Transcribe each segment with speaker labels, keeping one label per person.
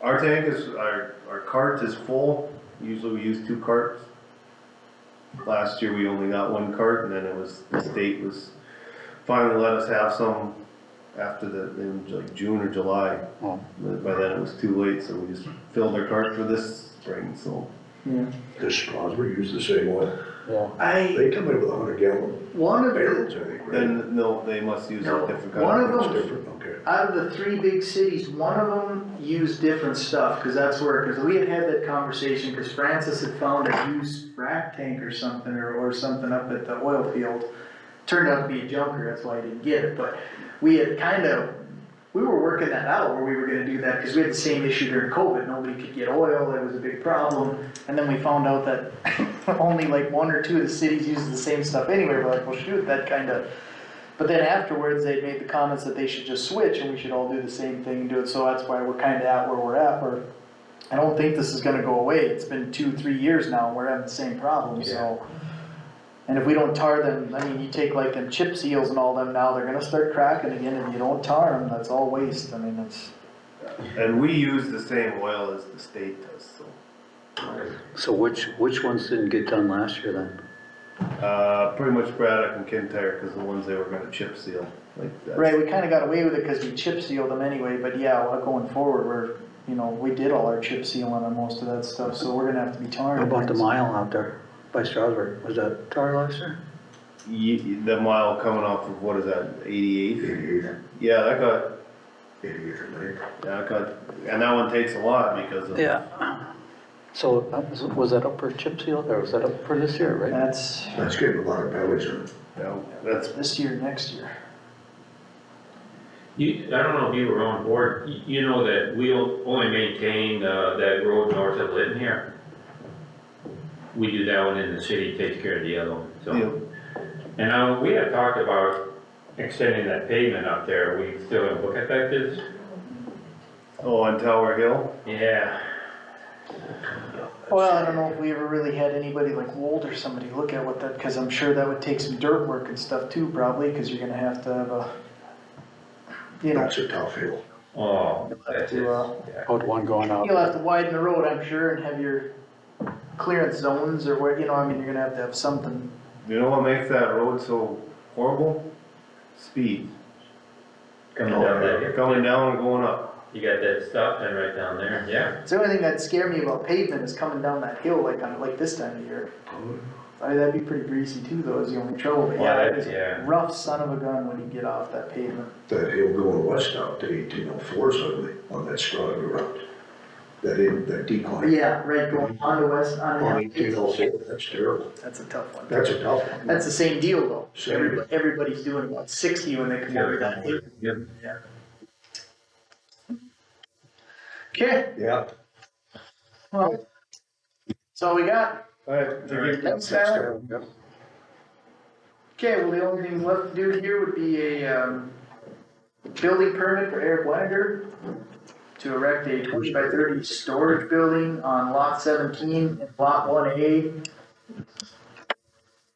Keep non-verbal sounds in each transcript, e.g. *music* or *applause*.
Speaker 1: Our tank is, our, our cart is full, usually we use two carts. Last year, we only got one cart, and then it was, the state was, finally let us have some after the, in like June or July.
Speaker 2: Oh.
Speaker 1: But by then, it was too late, so we just filled our cart for this spring, so.
Speaker 3: Does Strasburg use the same one?
Speaker 2: Yeah.
Speaker 4: I
Speaker 3: They come in with a hundred gallon
Speaker 4: one of the
Speaker 3: barrels, I think, right?
Speaker 1: Then, no, they must use a
Speaker 4: No,
Speaker 1: different
Speaker 4: one
Speaker 1: kind
Speaker 4: of
Speaker 1: of.
Speaker 4: them-
Speaker 3: It's different, okay.
Speaker 4: out of the three big cities, one of them used different stuff because that's where because we had had that conversation because Francis had found a used frac tank or something or, or something up at the oil field. Turned out to be a junker, that's why I didn't get it. But we had kind of we were working that out where we were going to do that because we had the same issue during COVID. Nobody could get oil; it was a big problem. And then we found out that *laughs* only like one or two of the cities used the same stuff anyway. We're like, well, shoot, that kind of. But then afterwards, they made the comments that they should just switch and we should all do the same thing and do it, so that's why we're kinda at where we're at, where I don't think this is gonna go away, it's been two, three years now, and we're having the same problem, so. And if we don't tar them, I mean, you take like them chip seals and all them now, they're gonna start cracking again, if you don't tar them, that's all waste, I mean, it's.
Speaker 1: And we use the same oil as the state does, so.
Speaker 2: So which, which ones didn't get done last year then?
Speaker 1: Uh, pretty much Braddock and Kintyre, cause the ones they were gonna chip seal, like that's-
Speaker 4: Right, we kinda got away with it, cause we chip sealed them anyway, but yeah, well, going forward, we're, you know, we did all our chip sealing on most of that stuff, so we're gonna have to be tarring.
Speaker 2: How about the
Speaker 4: things.
Speaker 2: mile out there by Strasburg? Was that tar last year?
Speaker 1: Ye- the mile coming off of, what is that, eighty-eight?
Speaker 3: Eighty-eight,
Speaker 1: Yeah, that got,
Speaker 3: eighty-eight or ninety.
Speaker 1: yeah, that got, and that one takes a lot because of.
Speaker 2: Yeah. So that was- was that up for chip seal or was that up for this year, right?
Speaker 4: That's
Speaker 3: That's getting a lot of bellies on it.
Speaker 1: you know, That's,
Speaker 4: this year, next year.
Speaker 5: You, I don't know if you were on board, you, you know that we o- only maintain, uh, that road north of Lytton here. We do that one in the city, takes care of the other one,
Speaker 1: you
Speaker 5: so.
Speaker 1: know,
Speaker 5: And, uh, we had talked about extending that pavement up there, we still gonna look at that this?
Speaker 1: oh, on Tower Hill,
Speaker 5: Yeah,
Speaker 4: Well, I don't know if we ever really had anybody like Wold or somebody look at what that, cause I'm sure that would take some dirt work and stuff too, probably, cause you're gonna have to have a, you know,
Speaker 3: That's a tough hill.
Speaker 5: oh, that's it,
Speaker 4: to, uh,
Speaker 5: yeah.
Speaker 2: Out one going out.
Speaker 4: you'll have to widen the road, I'm sure, and have your clearance zones or where, you know, I mean, you're gonna have to have something.
Speaker 1: you know what makes that road so horrible? Speed,
Speaker 5: coming down that hill.
Speaker 1: coming down and going up,
Speaker 5: You got that stop sign right down there, yeah,
Speaker 4: It's the only thing that scared me about pavement is coming down that hill like on, like this time of year. I mean, that'd be pretty greasy too, though, is the only trouble, but
Speaker 5: Well,
Speaker 4: yeah,
Speaker 5: that-
Speaker 4: it is a
Speaker 5: yeah.
Speaker 4: rough son of a gun when you get off that pavement.
Speaker 3: That hill going west out to eighteen oh four suddenly on that Strasburg route. That in, that decline.
Speaker 4: Yeah, right, going on to west,
Speaker 3: On
Speaker 4: on
Speaker 3: eighteen oh four, that's terrible.
Speaker 4: That's a tough one.
Speaker 3: That's a tough one.
Speaker 4: That's the same deal though.
Speaker 3: Same.
Speaker 4: Everybody, everybody's doing about sixty when they come over that. hill.
Speaker 5: yeah.
Speaker 4: Okay,
Speaker 3: Yeah.
Speaker 4: well, that's all we got.
Speaker 1: alright,
Speaker 5: All right.
Speaker 4: Thanks, Tyler.
Speaker 2: Yep.
Speaker 4: Okay, well, the only thing left to do here would be a, um, building permit for Eric Wagner to erect a twenty by thirty storage building on lot seventeen and lot one A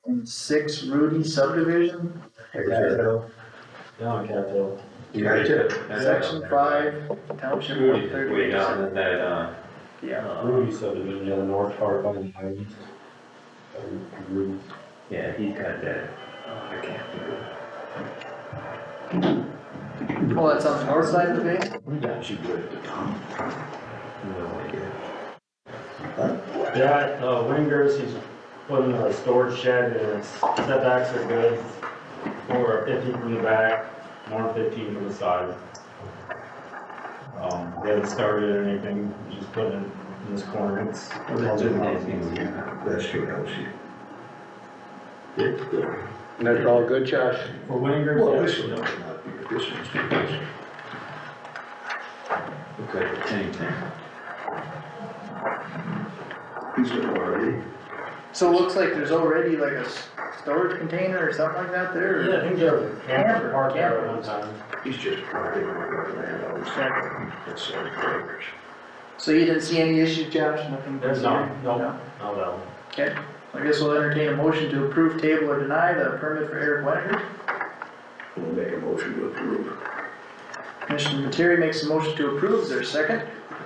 Speaker 4: in six Rudy subdivision,
Speaker 5: Down Capitol.
Speaker 3: Right there.
Speaker 4: section five, township one thirty.
Speaker 5: Way down in that, uh,
Speaker 4: Yeah.
Speaker 5: uh,
Speaker 6: Ruby subdivision on the north part by the highway. Uh, Ruby.
Speaker 5: Yeah, he's got that, I can't think of.
Speaker 4: Well, that's on the north side of the bay?
Speaker 3: We got you good at the top.
Speaker 5: No idea.
Speaker 6: Yeah, uh, Wingers, he's putting a storage shed and his setbacks are good. Or fifteen from the back, more than fifteen from the side. Um, they haven't started or anything, just putting it in this corner, it's.
Speaker 3: That's two houses. Yeah.
Speaker 2: And that's all good, Josh?
Speaker 6: For Wingers.
Speaker 3: Well,
Speaker 6: yeah.
Speaker 3: this one might not be, this one's too close.
Speaker 5: Okay, same thing.
Speaker 3: He's got already.
Speaker 4: So it looks like there's already like a s- storage container or something like that there?
Speaker 6: Yeah, I
Speaker 4: or-
Speaker 6: think there was a camper parked there at one time.
Speaker 3: He's just providing what we land on his property. That's all it covers.
Speaker 4: So you didn't see any issues, Josh, nothing?
Speaker 6: There's none, no,
Speaker 4: No?
Speaker 6: no, no.
Speaker 4: Okay, I guess we'll entertain a motion to approve, table, or deny the permit for Eric Wenninger.
Speaker 3: We'll make a motion to approve.
Speaker 4: Commissioner Materi makes a motion to approve, is there a second?